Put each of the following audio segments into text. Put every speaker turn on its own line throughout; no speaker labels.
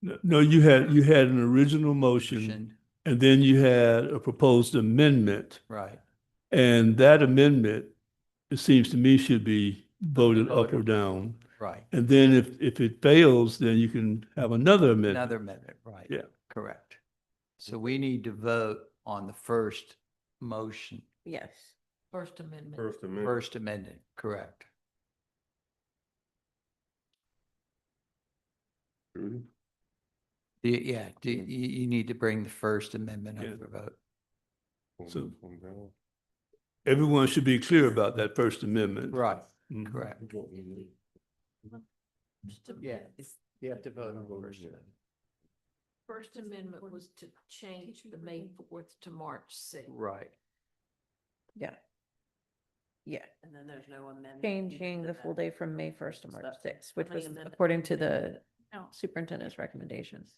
No- No, you had, you had an original motion
Motion,
and then you had a proposed amendment.
Right.
And that amendment, it seems to me, should be voted up or down.
Right.
And then if, if it fails, then you can have another amendment.
Another amendment, right.
Yeah.
Correct. So we need to vote on the first motion,
Yes. First Amendment.
First Amendment.
First Amendment, correct?
Mm-hmm.
Trudy?
Do you- Yeah, do you, you you need to bring the First Amendment
Yeah.
up for vote.
On-
So-
on down.
Everyone should be clear about that First Amendment.
Right,
Mhm.
correct. Yeah. You have to vote on the First Amendment.
First Amendment was to change the May fourth to March sixth.
Right.
Yeah, yeah,
And then there's no amendment.
changing the full day from May first to
So
March
that's
sixth, which
only
was
amendment.
according to the
No.
superintendent's recommendations.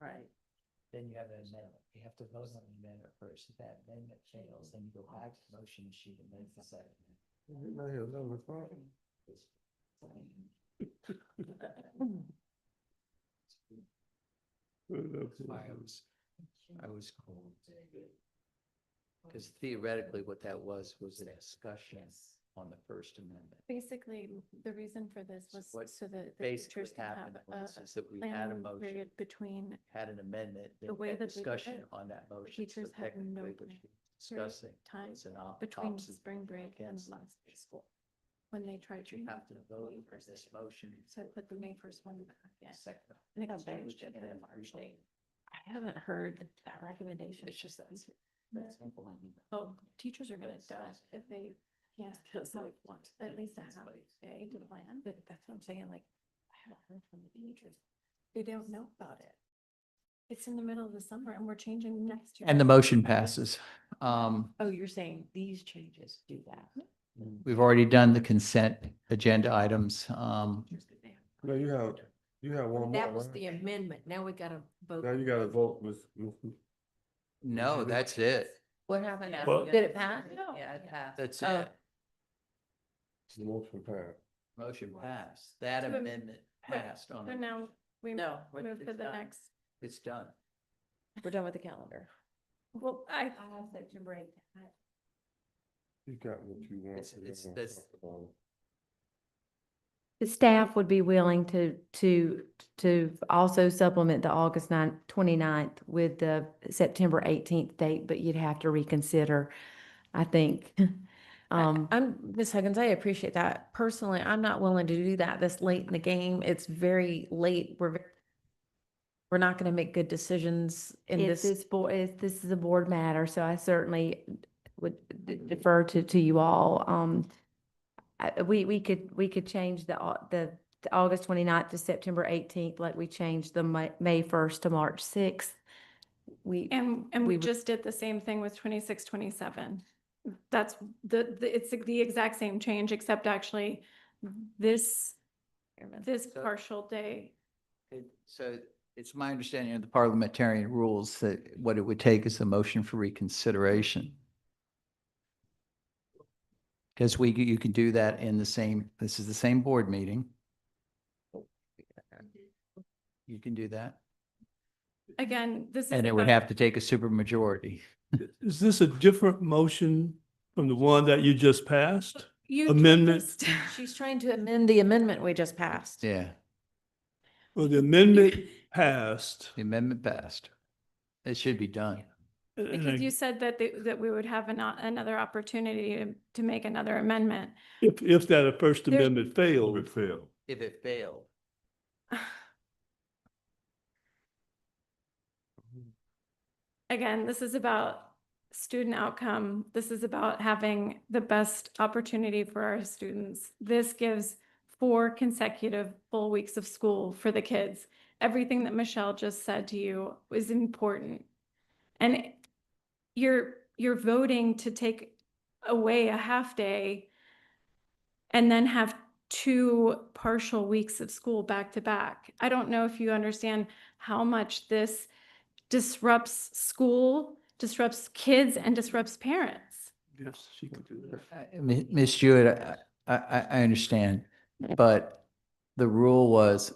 Right.
Then you have an amendment. You have to vote on the amendment first. If that amendment fails, then you go back to the motion sheet and make the second. That's why I was, I was cold. Because theoretically, what that was, was a discussion on the First Amendment.
Basically, the reason for this was
What
so that the
Basically,
teachers
what
can have
happened
a
was is that we had a
uh, planning
motion,
period between
had an amendment,
the
then
way
had
that we did
discussion
it,
on that motion.
teachers
So
had
technically,
no
what
time
you're Discussing
time
was an op-
between
opposite
spring break and
against
the last day of school. When they tried to.
You have
have
to vote for this motion.
So I put the May first one back again.
Second.
And it got
So we
benched at
can
the
have
March
original.
date.
I haven't heard that recommendation.
It's just that.
That's simple, I mean,
Oh, teachers are gonna
That's
die
nice.
if they, yeah,
feels
so
like once
at
in
least a
this
half
place.
day to plan, but that's what I'm saying, like, I haven't heard from the teachers. They don't know about it. It's in the middle of the summer and we're changing next year.
And the motion passes. Um,
Oh, you're saying these changes do that?
we've already done the consent agenda items. Um,
No, you have, you have one more.
That was the
right?
amendment. Now we gotta vote.
Now you gotta vote, Ms. Ms.
no, that's it.
What happened?
Yeah.
Well-
Did it pass?
No.
Yeah, it passed.
That's
Oh.
it.
the motion passed.
Motion passed. That
So am-
amendment passed on,
So
it.
now we
No,
move to the next,
it's done.
We're done with the calendar.
well, I,
have such a break.
You got what you want.
It's-
you
it's
don't
this-
talk about it.
The staff would be willing to, to, to also supplement the August 9th, 29th with the September 18th date, but you'd have to reconsider, I think. Um,
I'm, Ms. Huggins, I appreciate that. Personally, I'm not willing to do that this late in the game. It's very late. We're, ve- we're not going to make good decisions in
It's
this.
this board, it's, this is a board matter, so I certainly would d- defer to, to you all. Um, I- we, we could, we could change the, au- the, the August 29th to September 18th, like we changed the Ma- May 1st to March 6th. We.
and, and
we
we
would-
just did the same thing with twenty-six, twenty-seven. That's the, the, it's the exact same change, except actually this, this
So-
partial day
It- So it's my understanding of the parliamentarian rules that what it would take is a motion for reconsideration. Because we, you can do that in the same, this is the same board meeting. You can do that.
Again, this is.
And it would
about-
have to take a supermajority.
Is this a different motion from the one that you just passed?
You
amendment.
just-
She's trying to amend the amendment we just passed.
Yeah,
Well, the amendment passed.
the amendment passed. It should be done.
and- and
Because
I-
you said that, they- that we would have an, another opportunity to, to make another amendment.
If, if that First
There's-
Amendment failed,
It failed.
If it failed.
Again, this is about student outcome. This is about having the best opportunity for our students. This gives four consecutive full weeks of school for the kids. Everything that Michelle just said to you is important. And you're, you're voting to take away a half day and then have two partial weeks of school back to back. I don't know if you understand how much this disrupts school, disrupts kids and disrupts parents.
yes, she could do that.
I- I mean, Ms. Jewett, I, I, I understand, but the rule was